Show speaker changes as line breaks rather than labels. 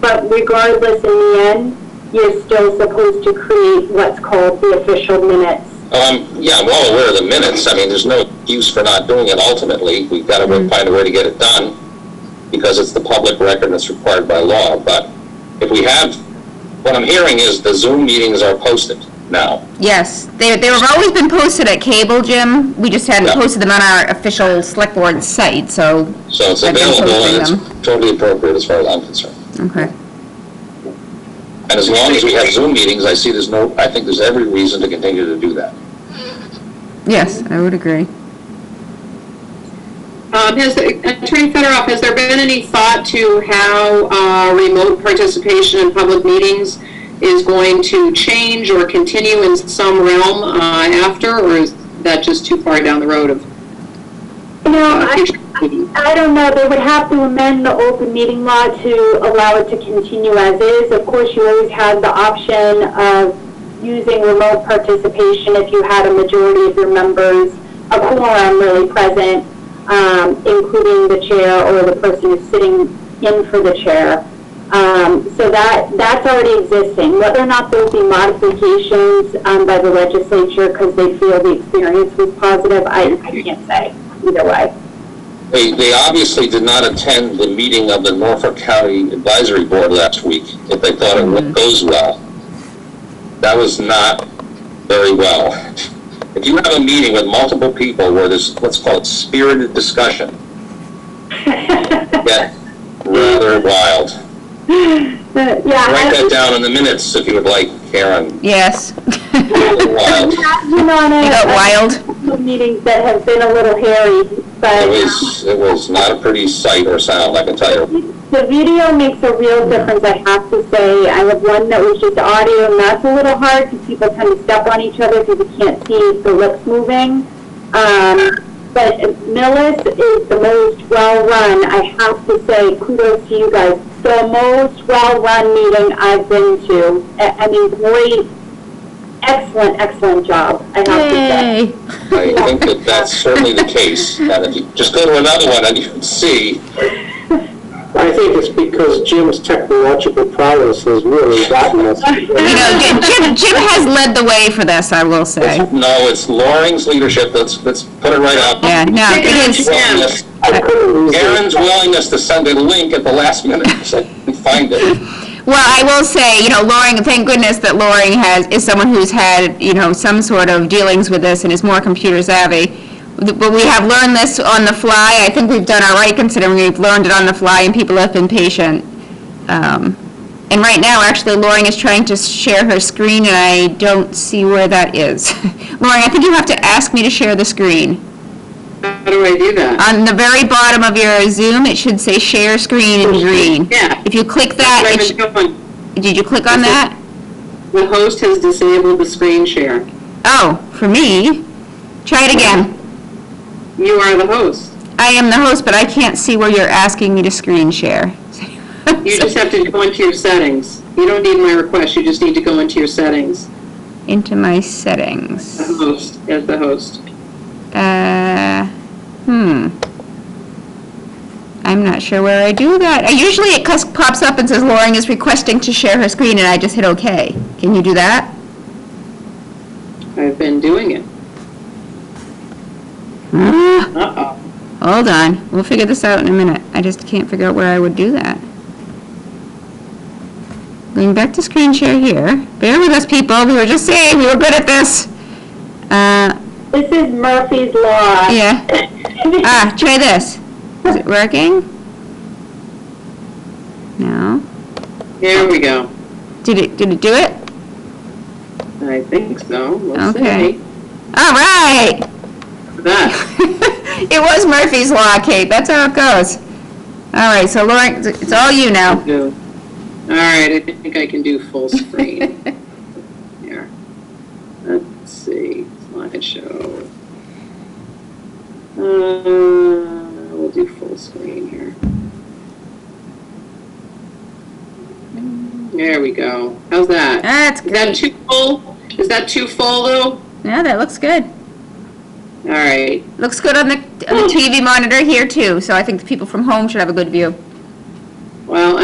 But regardless, in the end, you're still supposed to create what's called the official minutes.
Um, yeah, I'm well aware of the minutes. I mean, there's no use for not doing it ultimately. We've got to work- find a way to get it done because it's the public record and it's required by law. But if we have, what I'm hearing is the Zoom meetings are posted now.
Yes, they, they have always been posted at cable, Jim. We just hadn't
Yeah.
posted them on our official select board site, so,
So it's
I've been
available and
posting
it's totally appropriate as far as I'm concerned.
okay.
And as long as we have Zoom meetings, I see there's no, I think there's every reason to continue to do that.
Yes, I would agree.
Um, has, Attorney Federoff, has there been any thought to how, uh, remote participation in public meetings is going to change or continue in some realm, uh, after, or is that just too far down the road of,
You know,
uh,
I,
future meetings?
I don't know, they would have to amend the open meeting law to allow it to continue as is. Of course, you always have the option of using remote participation if you had a majority of your members, a quorum really present, um, including the chair or the person who's sitting in for the chair. Um, so that, that's already existing. Whether or not there'll be modifications, um, by the legislature because they feel the experience was positive, I, I can't say either way.
They, they obviously did not attend the meeting of the Norfolk County Advisory Board last week, if they thought it went- goes well. That was not very well. If you have a meeting with multiple people where there's, let's call it spirited discussion, get rather wild. Write
Yeah,
that down in the minutes if you would like, Karen,
Yes.
I've
rather wild.
been on
You got
a,
wild?
a meetings that have been a little hairy,
It
but
was, it was not a pretty sight or sound, I can tell you.
the video makes a real difference, I have to say. I have one that was just audio, and that's a little hard because people kind of step on each other because you can't see the lips moving. Um, but Millis is the most well-run, I have to say, kudos to you guys. The most well-run meeting I've been to. I, I mean, great, excellent, excellent job, I have to say.
Yay.
I think that that's certainly the case. Now, if you just go to another one and you can see,
I think it's because Jim's technological prowess has really gotten us.
You know, Jim- Jim, Jim has led the way for this, I will say.
it's, no, it's Loring's leadership. Let's, let's put it right out.
Yeah, no, it is,
Willingness-
I couldn't lose it.
Aaron's willingness to send a link at the last minute, so we find it.
well, I will say, you know, Loring, thank goodness that Loring has, is someone who's had, you know, some sort of dealings with this and is more computer savvy. But we have learned this on the fly. I think we've done all right considering we've learned it on the fly and people have been patient. Um, And right now, actually, Loring is trying to share her screen and I don't see where that is. Loring, I think you have to ask me to share the screen.
How do I do that?
On the very bottom of your Zoom, it should say share screen in green.
Yeah.
If you click that,
Where
it
is
sh-
it going?
did you click on that?
The host has disabled the screen share.
Oh, for me? Try it again.
You are the host.
I am the host, but I can't see where you're asking me to screen share.
You just have to go into your settings. You don't need my request, you just need to go into your settings,
Into my
the
settings.
host, as the host.
Uh, hmm. I'm not sure where I do that. Uh, Usually it cus- pops up and says Loring is requesting to share her screen and I just hit okay. Can you do that?
I've been doing it.
Ah.
Uh-oh.
Hold on, we'll figure this out in a minute. I just can't figure out where I would do that. Going back to screen share here. Bear with us, people, we were just saying we were good at this. Uh,
This is Murphy's Law.
yeah, ah, try this. Is it working? No.
There we go.
Did it, did it do it?
I think so. Let's
Okay.
see.
All right!
That.
It was Murphy's Law, Kate, that's how it goes. All right, so Lauren, it's all you now.
do. All right, I think I can do full screen. Here. Let's see, slideshow. Uh, we'll do full screen here. There we go. How's that?
That's
Is that
great.
too full? Is that too full though? All
Yeah, that looks good.
right.
Looks good on the, on the TV monitor here too, so I think the people from home should have a good view.
Well,